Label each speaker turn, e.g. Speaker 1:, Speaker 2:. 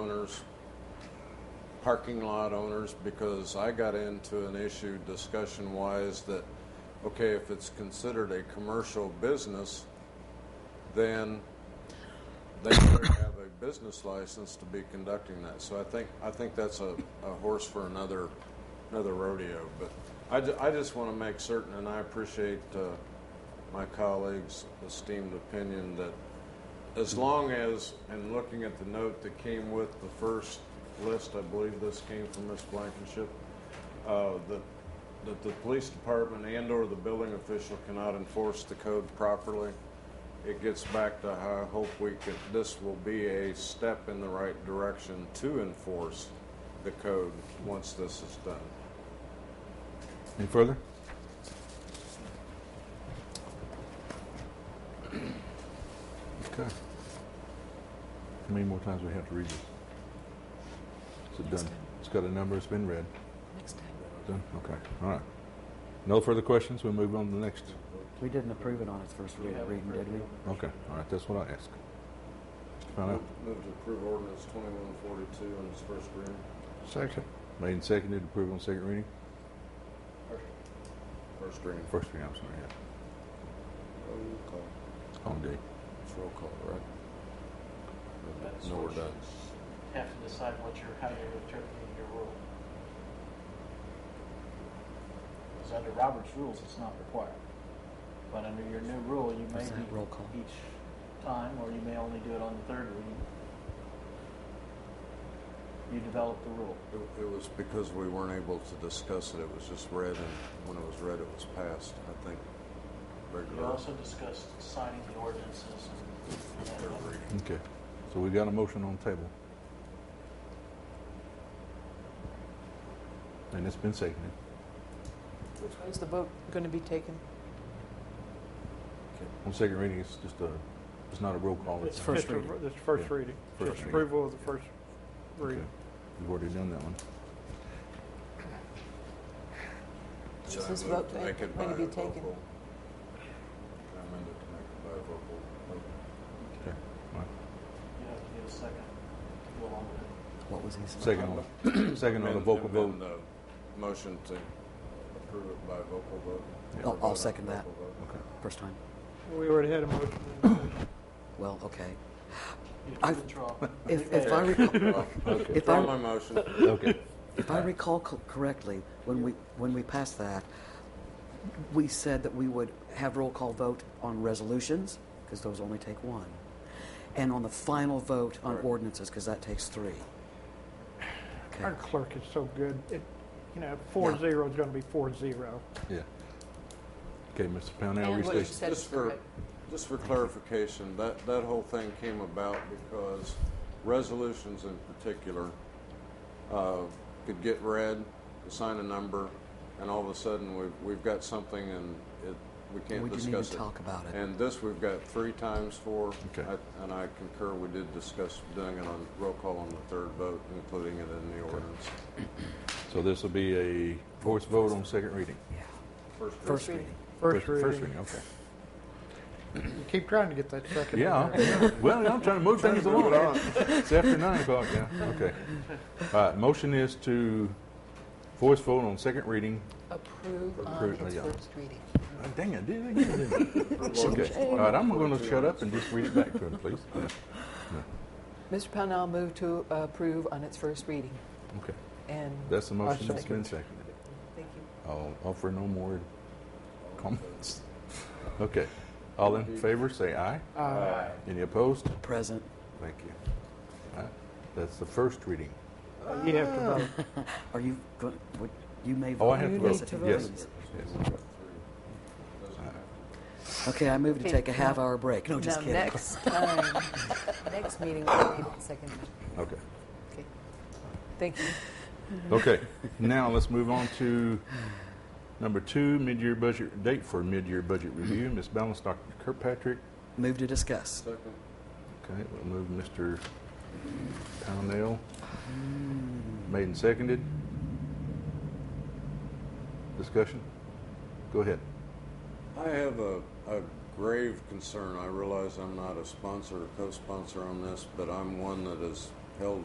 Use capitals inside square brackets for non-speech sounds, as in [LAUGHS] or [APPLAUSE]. Speaker 1: owners, parking lot owners, because I got into an issue discussion wise that, okay, if it's considered a commercial business, then they better have a business license to be conducting that. So I think, I think that's a, a horse for another, another rodeo. But I, ju- I just want to make certain, and I appreciate, uh, my colleagues' esteemed opinion that as long as, and looking at the note that came with the first list, I believe this came from Ms. Blankenship, uh, that, that the police department and/or the building official cannot enforce the code properly, it gets back to how I hope we could, this will be a step in the right direction to enforce the code once this is done.
Speaker 2: Any further? Okay. How many more times do we have to read this? Is it done? It's got a number, it's been read.
Speaker 3: Next time.
Speaker 2: Done? Okay, all right. No further questions, we'll move on to the next.
Speaker 4: We didn't approve it on its first read- reading, did we?
Speaker 2: Okay, all right, that's what I asked. Find out.
Speaker 1: Move to approve ordinance 2142 in its first reading.
Speaker 2: Second. Made and seconded, approve on second reading?
Speaker 1: First reading.
Speaker 2: First reading, I'm sorry, yeah.
Speaker 1: Roll call.
Speaker 2: On D.
Speaker 1: It's roll call, right?
Speaker 5: That's
Speaker 1: No, we're
Speaker 5: what you
Speaker 1: done.
Speaker 5: Have to decide what you're, how you're interpreting your rule. Because under Robert's rules, it's not required. But under your new rule, you may
Speaker 4: Is that roll call?
Speaker 5: be each time, or you may only do it on the third reading. You develop the rule.
Speaker 1: It- It was because we weren't able to discuss it, it was just read, and when it was read, it was passed, I think.
Speaker 5: You
Speaker 1: Regular
Speaker 5: also discussed signing the ordinances and-
Speaker 1: third
Speaker 5: and
Speaker 1: reading.
Speaker 2: Okay, so we got a motion on the table. And it's been seconded.
Speaker 3: Which way is the vote going to be taken?
Speaker 2: On second reading, it's just a, Oh, it's not a roll call.
Speaker 6: It's
Speaker 2: a-
Speaker 6: just
Speaker 4: first
Speaker 6: a-
Speaker 4: reading.
Speaker 6: It's first
Speaker 2: Yeah.
Speaker 6: reading.
Speaker 2: First
Speaker 6: Just
Speaker 2: reading.
Speaker 6: approval of the first
Speaker 2: Okay.
Speaker 6: reading.
Speaker 2: We've already done that one.
Speaker 1: So
Speaker 3: Is
Speaker 1: I
Speaker 3: this
Speaker 1: moved
Speaker 3: vote
Speaker 1: to make it
Speaker 3: going to be
Speaker 1: bivocal.
Speaker 3: taken?
Speaker 1: I amended to make it bivocal.
Speaker 2: Okay. All right.
Speaker 5: you have to get a second to go along with it.
Speaker 4: What was his?
Speaker 2: Second
Speaker 1: [COUGHS]
Speaker 2: on, second on the
Speaker 1: Amend-
Speaker 2: vocal
Speaker 1: amend
Speaker 2: vote.
Speaker 1: the Motion to approve it by vocal vote.
Speaker 2: Yeah.
Speaker 4: I'll- I'll
Speaker 1: Vote on
Speaker 4: second that.
Speaker 1: vocal vote.
Speaker 2: Okay.
Speaker 4: First time.
Speaker 6: We already had a motion. and a second.
Speaker 4: Well, okay.
Speaker 5: You
Speaker 4: I-
Speaker 5: have to withdraw.
Speaker 4: If, if I recall,
Speaker 2: Okay.
Speaker 4: If I-
Speaker 1: Withdraw my motion.
Speaker 2: Okay.
Speaker 4: if I recall co- correctly, when we, when we passed that, we said that we would have roll call vote on resolutions, because those only take one. And on the final vote on
Speaker 1: Right.
Speaker 4: ordinances, because that takes three.
Speaker 6: Our
Speaker 4: Okay,
Speaker 6: clerk is so good. It, you know, four zero is going to be four zero.
Speaker 2: Yeah. Okay, Mr. Pownell,
Speaker 3: And what you
Speaker 2: restate.
Speaker 3: said is
Speaker 1: Just for,
Speaker 3: correct.
Speaker 1: just for clarification, that, that whole thing came about because resolutions in particular uh, could get read, assign a number, and all of a sudden, we've, we've got something and it, we
Speaker 4: we
Speaker 1: can't
Speaker 4: didn't even
Speaker 1: discuss it.
Speaker 4: talk about it.
Speaker 1: And this, we've got three times for,
Speaker 2: Okay.
Speaker 1: I- and I concur, we did discuss doing it on roll call on the third vote, including it in the ordinance.
Speaker 2: So this will be a voice vote on second reading.
Speaker 4: Yeah.
Speaker 1: First
Speaker 4: First
Speaker 1: reading.
Speaker 4: reading.
Speaker 6: First
Speaker 2: First
Speaker 6: reading.
Speaker 2: reading, okay.
Speaker 6: You keep trying to get that second. in
Speaker 2: Yeah,
Speaker 6: there.
Speaker 2: I'm- well, I'm trying to move things along. It's after nine o'clock, yeah, okay. All right, motion is to voice vote on second reading.
Speaker 3: Approve on
Speaker 2: Approve,
Speaker 3: its
Speaker 2: yeah.
Speaker 3: first reading.
Speaker 2: Uh, Dang, I did it again, didn't I? [LAUGHS] Okay, all right, I'm gonna shut up and just read it back to him, please.
Speaker 3: Mr. Pownell moved to approve on its first reading,
Speaker 2: Okay,
Speaker 3: and
Speaker 2: that's the motion that's been
Speaker 6: second.
Speaker 2: seconded.
Speaker 3: thank you.
Speaker 2: I'll offer no more comments. Okay, all in favor, say aye.
Speaker 6: Uh,
Speaker 2: Any opposed?
Speaker 4: Present.
Speaker 2: Thank you. All right, That's the first reading.
Speaker 6: You have to vote.
Speaker 4: Are you, go- would- you may vote.
Speaker 2: Oh, I have to
Speaker 3: You
Speaker 2: vote,
Speaker 3: need to vote.
Speaker 2: yes. yes.
Speaker 1: Doesn't have to.
Speaker 4: Okay, I move to take
Speaker 3: Okay.
Speaker 4: a half-hour break. No, just
Speaker 3: Now,
Speaker 4: kidding.
Speaker 3: next [LAUGHS] time, next meeting will be the second. reading.
Speaker 2: Okay.
Speaker 3: Okay. Thank you.
Speaker 2: Okay, now let's move on to number two, mid-year budget, date for mid-year budget review. Ms. Balance, Dr. Kirkpatrick.
Speaker 4: Move to discuss.
Speaker 1: Second.
Speaker 2: Okay, we'll move Mr. Pownell. Made and seconded. Discussion? Go ahead.
Speaker 1: I have a, a grave concern. I realize I'm not a sponsor or co-sponsor on this, but I'm one that has held